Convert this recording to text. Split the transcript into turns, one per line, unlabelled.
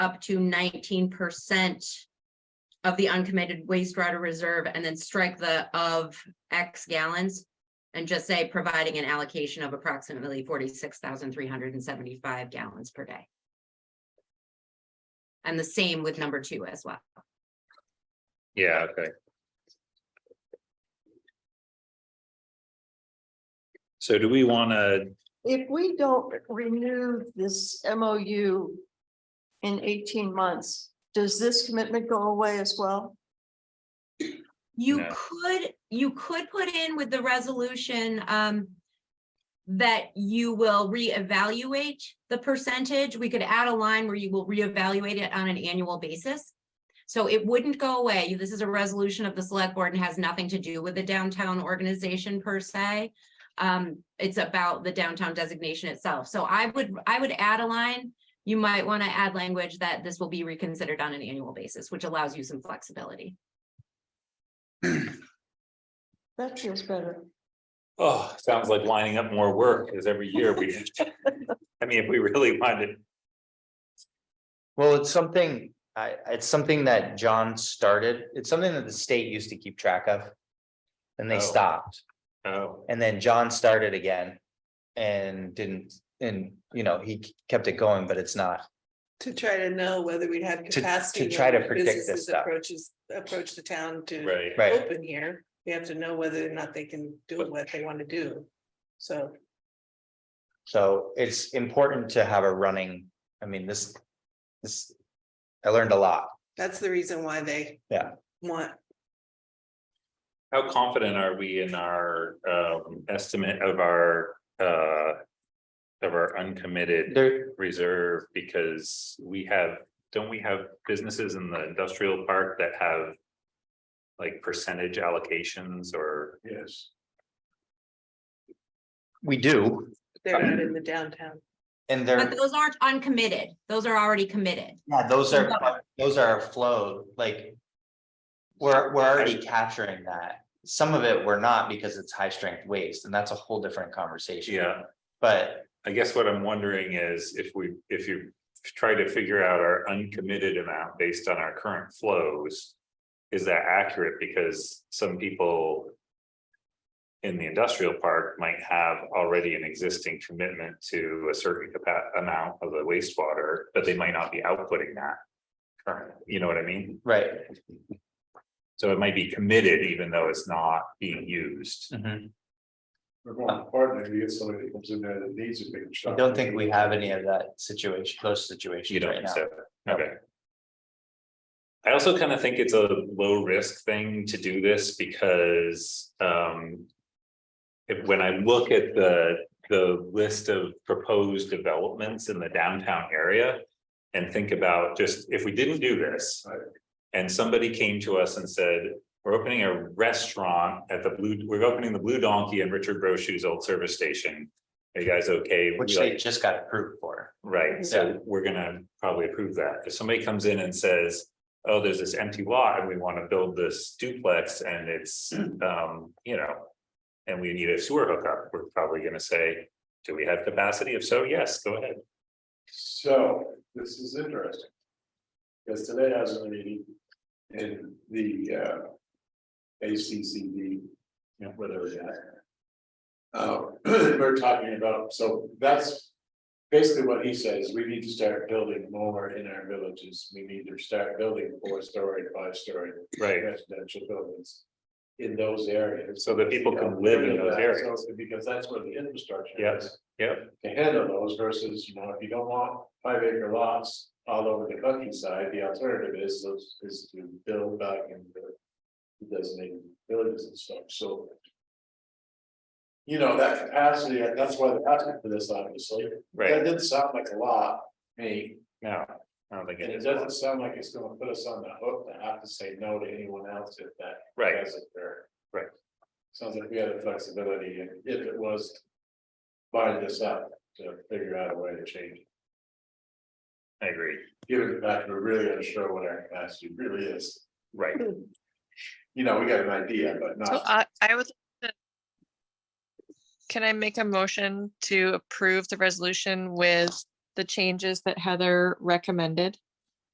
up to nineteen percent of the uncommitted wastewater reserve and then strike the of X gallons and just say providing an allocation of approximately forty-six thousand three hundred and seventy-five gallons per day. And the same with number two as well.
Yeah, okay. So do we wanna,
If we don't renew this MOU in eighteen months, does this commitment go away as well?
You
No.
could, you could put in with the resolution, um. That you will reevaluate the percentage. We could add a line where you will reevaluate it on an annual basis. So it wouldn't go away. This is a resolution of the select board and has nothing to do with the downtown organization per se. Um, it's about the downtown designation itself. So I would, I would add a line. You might want to add language that this will be reconsidered on an annual basis, which allows you some flexibility.
That feels better.
oh, sounds like lining up more work, because every year we. I mean, if we really wanted,
Well, it's something, I, it's something that John started. It's something that the state used to keep track of. And
Oh.
they stopped
oh,
and then John started again. And didn't, and you know, he kept it going, but it's not.
To try to know whether we'd have
to
capacity.
try
when
to predict this
businesses
stuff.
Approaches, approach the town to
right,
Right.
open here, we have to know whether or not they can do what they want to do. So,
So it's important to have a running, I mean, this, this. I learned a lot.
that's the reason why they.
Yeah.
Want,
how confident are we in our um estimate of our uh. Of our uncommitted
There,
reserve, because we have, don't we have businesses in the industrial park that have? Like percentage allocations or? Yes.
we do,
they're not in the downtown.
and
But
there,
those aren't uncommitted. Those are already committed.
yeah, those are, those are flowed, like. We're, we're already capturing that. Some of it we're not because it's high strength waste, and that's a whole different conversation.
Yeah,
But
I guess what I'm wondering is if we, if you try to figure out our uncommitted amount based on our current flows. Is that accurate? Because some people. In the industrial park might have already an existing commitment to a certain capa- amount of the wastewater, but they might not be outputting that. current. you know what I mean?
right,
So it might be committed even though it's not being used.
We're going to partner, you get somebody that comes in there that needs a big
I
shot.
don't think we have any of that situation, those
You
situations
don't,
right
think so,
now.
okay. I also kind of think it's a low risk thing to do this because um. If, when I look at the, the list of proposed developments in the downtown area. And think about just if we didn't do this.
Right.
And somebody came to us and said, we're opening a restaurant at the Blue, we're opening the Blue Donkey and Richard Brochu's old service station. Are you guys okay?
Which
We like-
they just got approved for.
Right, so we're gonna probably approve that. If somebody comes in and says, oh, there's this empty lot and we wanna build this duplex and it's, um, you know. And we need a sewer hookup, we're probably gonna say, do we have capacity? If so, yes, go ahead.
So, this is interesting. Because today has a meeting in the uh. ACCD, you know, whatever that. Uh, we're talking about, so that's. Basically what he says, we need to start building more in our villages, we need to start building four-story, five-story
Right,
residential buildings. In those areas.
So that people can live in those areas.
So, Because that's where the infrastructure.
Yes.
is
yep,
to handle those versus, you know, if you don't want five acre lots all over the countryside, the alternative is, those- is to build back in the designated villages and stuff, so. You know, that capacity, that's why they're asking for this, obviously, that
right,
didn't sound like a lot, to me,
no, I don't think
and
it
it
is,
doesn't sound like it's gonna put us on the hook to have to say no to anyone else if that
right,
as it there.
Right.
Sounds like we had the flexibility, and if it was. Buying this up to figure out a way to change, it.
I agree,
given the fact we're really unsure what our capacity really is.
right,
You know, we got an idea, but
So
not,
I, I would. like to- Can I make a motion to approve the resolution with the changes that Heather recommended?